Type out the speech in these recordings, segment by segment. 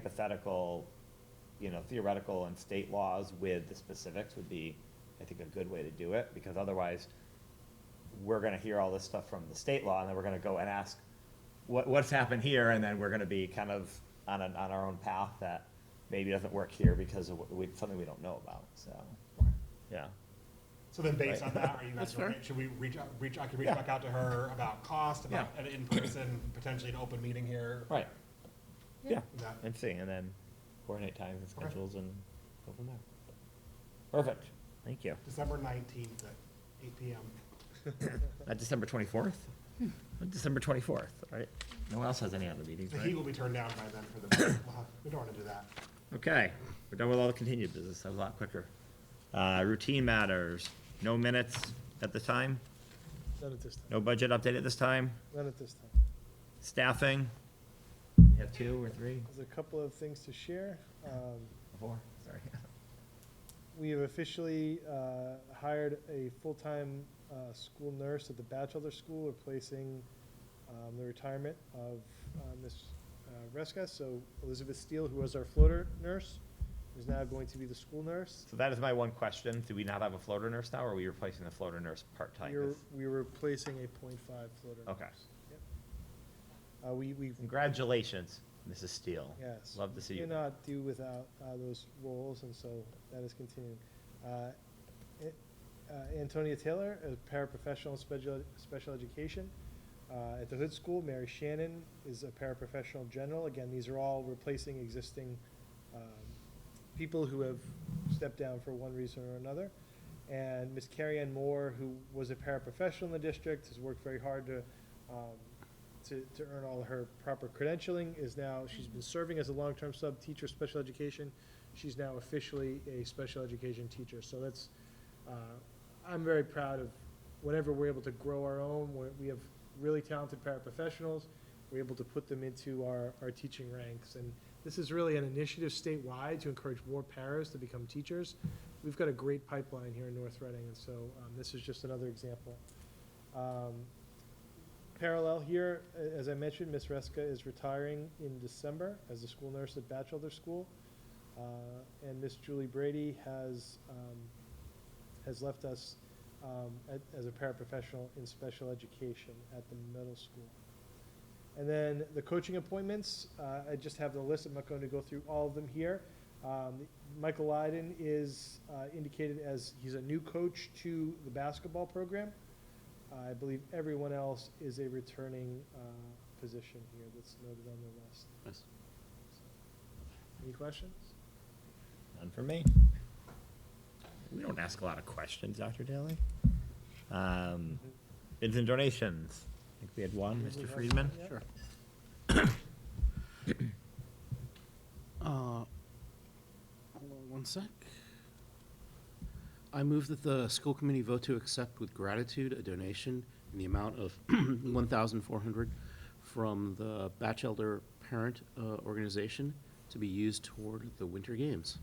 hypothetical, you know, theoretical and state laws with the specifics would be, I think, a good way to do it, because otherwise, we're gonna hear all this stuff from the state law, and then we're gonna go and ask, what, what's happened here, and then we're gonna be kind of on an, on our own path that maybe doesn't work here because of, what we, something we don't know about, so, yeah. So then based Right. on that, are you That's guys, fair. okay? should we reach, out- reach, I could reach Yeah. back out to her about cost, about Yeah. an in-person, potentially an open meeting here? Right. Yeah, Yeah. and see, and then coordinate times and Okay. schedules and go from there. Perfect, thank you. December nineteenth at eight PM. Not Uh, December twenty-fourth? December twenty-fourth, right? No one else has any other meetings, The heat right? will be turned down by then for the, we'll have- we don't want to do that. Okay, we're done with all the continued business, that was a lot quicker. Uh, routine matters, no minutes at the time, Not at this time, no budget update at this time, not at this time. staffing. We have two or three, There's a couple of things to share. Um, four, sorry. We have officially uh, hired a full-time uh, school nurse at the bachelor school, replacing um, the retirement of uh, Ms. uh, Reska. So Elizabeth Steele, who was our floater nurse, is now going to be the school nurse. So that is my one question, do we not have a floater nurse now, or are we replacing the floater nurse part-time? We're, we're replacing a .5 floater. Okay. nurse. Yep. Uh, We, we, Congratulations, Mrs. Steele. yes. Love to see you. Cannot do without uh, those roles, and so that is continuing. Uh, A- uh, Antonia Taylor, a paraprofessional in special, special education. Uh, At the Hood School, Mary Shannon is a paraprofessional general. Again, these are all replacing existing um, people who have stepped down for one reason or another. And Ms. Carrie Ann Moore, who was a paraprofessional in the district, has worked very hard to, um, to, to earn all her proper credentialing, is now, she's been serving as a long-term sub teacher of special education. She's now officially a special education teacher. So that's, uh, I'm very proud of whenever we're able to grow our own, we- we have really talented paraprofessionals, we're able to put them into our, our teaching ranks. And this is really an initiative statewide to encourage more paras to become teachers. We've got a great pipeline here in North Reading, and so um, this is just another example. Um, Parallel here, a- as I mentioned, Ms. Reska is retiring in December as a school nurse at Bachelor School. Uh, And Miss Julie Brady has, um, has left us um, at- as a paraprofessional in special education at the middle school. And then the coaching appointments, uh, I just have the list, I'm not going to go through all of them here. Um, Michael Lyden is uh, indicated as, he's a new coach to the basketball program. I believe everyone else is a returning uh, position here that's noted on the list. Nice. Any questions? None for me. We don't ask a lot of questions, Dr. Daly. Um, bids and donations. I think we had one, Mr. Friedman. Sure. Uh, Hold on one sec. I move that the school committee vote to accept with gratitude a donation in the amount of one thousand four hundred from the Batchelder Parent uh, Organization to be used toward the Winter Games.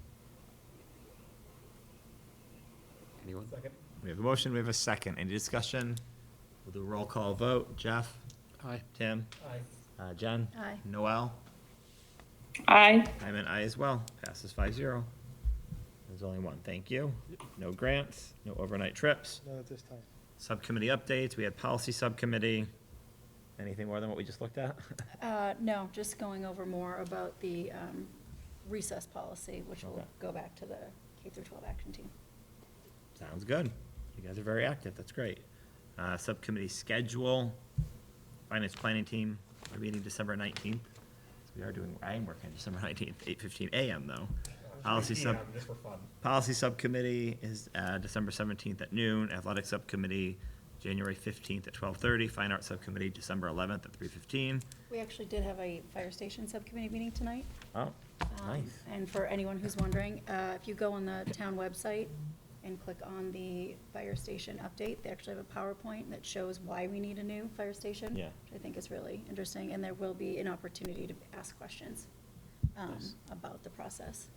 Anyone? Second. We have a motion, we have a second. Any discussion? We'll do a roll call vote. Jeff? Aye. Tim? Aye. Uh, Jen? Aye. Noel? Aye. I'm an aye as well. Passes five zero. There's only one. Thank you. No grants, no overnight trips. None at this time. Subcommittee updates. We had policy subcommittee. Anything more than what we just looked at? Uh, no, just going over more about the um, recess policy, which will Okay. go back to the K through 12 action team. Sounds good. You guys are very active, that's great. Uh, subcommittee schedule, finance planning team, we're meeting December nineteenth. We are doing, I am working December nineteenth, eight fifteen AM though. Policy sub, Yeah, Just for fun. policy subcommittee is, uh, December seventeenth at noon, athletic subcommittee, January fifteenth at twelve thirty, fine arts subcommittee, December eleventh at three fifteen. We actually did have a fire station subcommittee meeting tonight. Oh, Um, nice. And for anyone who's wondering, uh, if you go on the town website and click on the fire station update, they actually have a PowerPoint that shows why we need a new fire station. Yeah. Which I think is really interesting, and there will be an opportunity to ask questions um, Nice. about the process.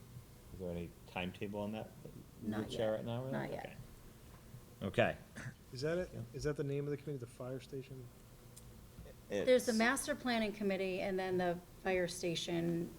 Is there any timetable on that? that we Not would Share yet. right now, really? Not yet. Okay. Is that it? Yeah. Is that the name of the committee, the fire station? Okay. There's the It's- master planning committee and then the fire station